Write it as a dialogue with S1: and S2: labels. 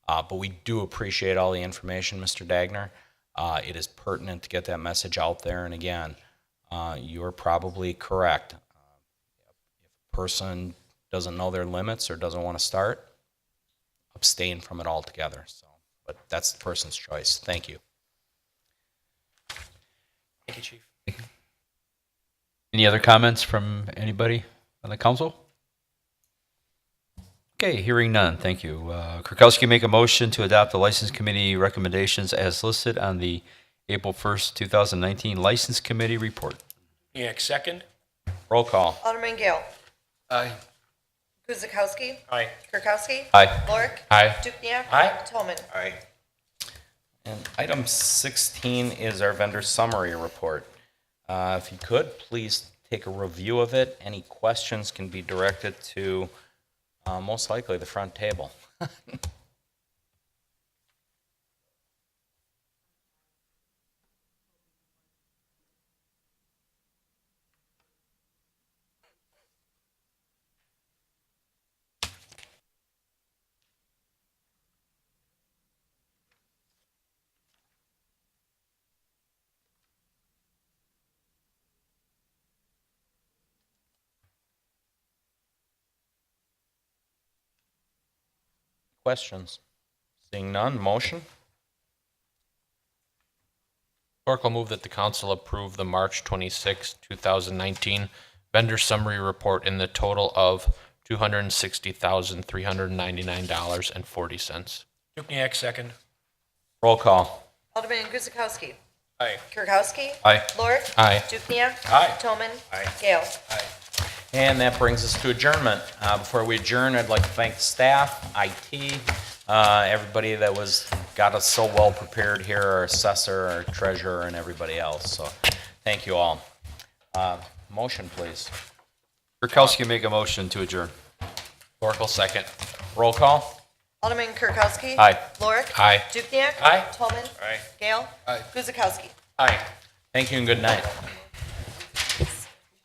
S1: Uh, But we do appreciate all the information, Mr. Dagner. Uh, It is pertinent to get that message out there. And again, uh, you're probably correct. Uh, If a person doesn't know their limits or doesn't want to start, abstain from it altogether. So, But that's the person's choice. Thank you.
S2: Thank you, Chief.
S3: Any other comments from anybody on the council? Okay, hearing none, thank you. Uh, Kirkowski make a motion to adopt the License Committee recommendations as listed on the April 1st, 2019 License Committee report.
S2: Dukniak, second.
S1: Roll call.
S4: Alderman Gale.
S2: Aye.
S4: Guzekowski.
S2: Aye.
S4: Kirkowski.
S3: Aye.
S4: Lorik.
S3: Aye.
S4: Dukenyak.
S2: Aye.
S4: Toman.
S2: Aye.
S1: And item 16 is our vendor summary report. Uh, If you could, please take a review of it. Any questions can be directed to, uh, most likely, the front table. Questions? Seeing none, motion?
S5: Clerk will move that the council approve the March 26, 2019 vendor summary report in the total of $260,399.40.
S2: Dukniak, second.
S1: Roll call.
S4: Alderman Guzekowski.
S2: Aye.
S4: Kirkowski.
S3: Aye.
S4: Lorik.
S5: Aye.
S4: Dukenyak.
S2: Aye.
S4: Toman.
S2: Aye.
S4: Gale.
S2: Aye.
S1: And that brings us to adjournment. Uh, Before we adjourn, I'd like to thank the staff, IT, uh, everybody that was, got us so well prepared here, our assessor, our treasurer, and everybody else. So thank you all. Uh, Motion, please.
S3: Kirkowski make a motion to adjourn.
S5: Clerk will second.
S1: Roll call.
S4: Alderman Kirkowski.
S3: Aye.
S4: Lorik.
S5: Aye.
S4: Dukenyak.
S2: Aye.
S4: Toman.
S2: Aye.
S4: Gale.
S2: Aye.
S4: Guzekowski.
S2: Aye.
S1: Thank you and good night.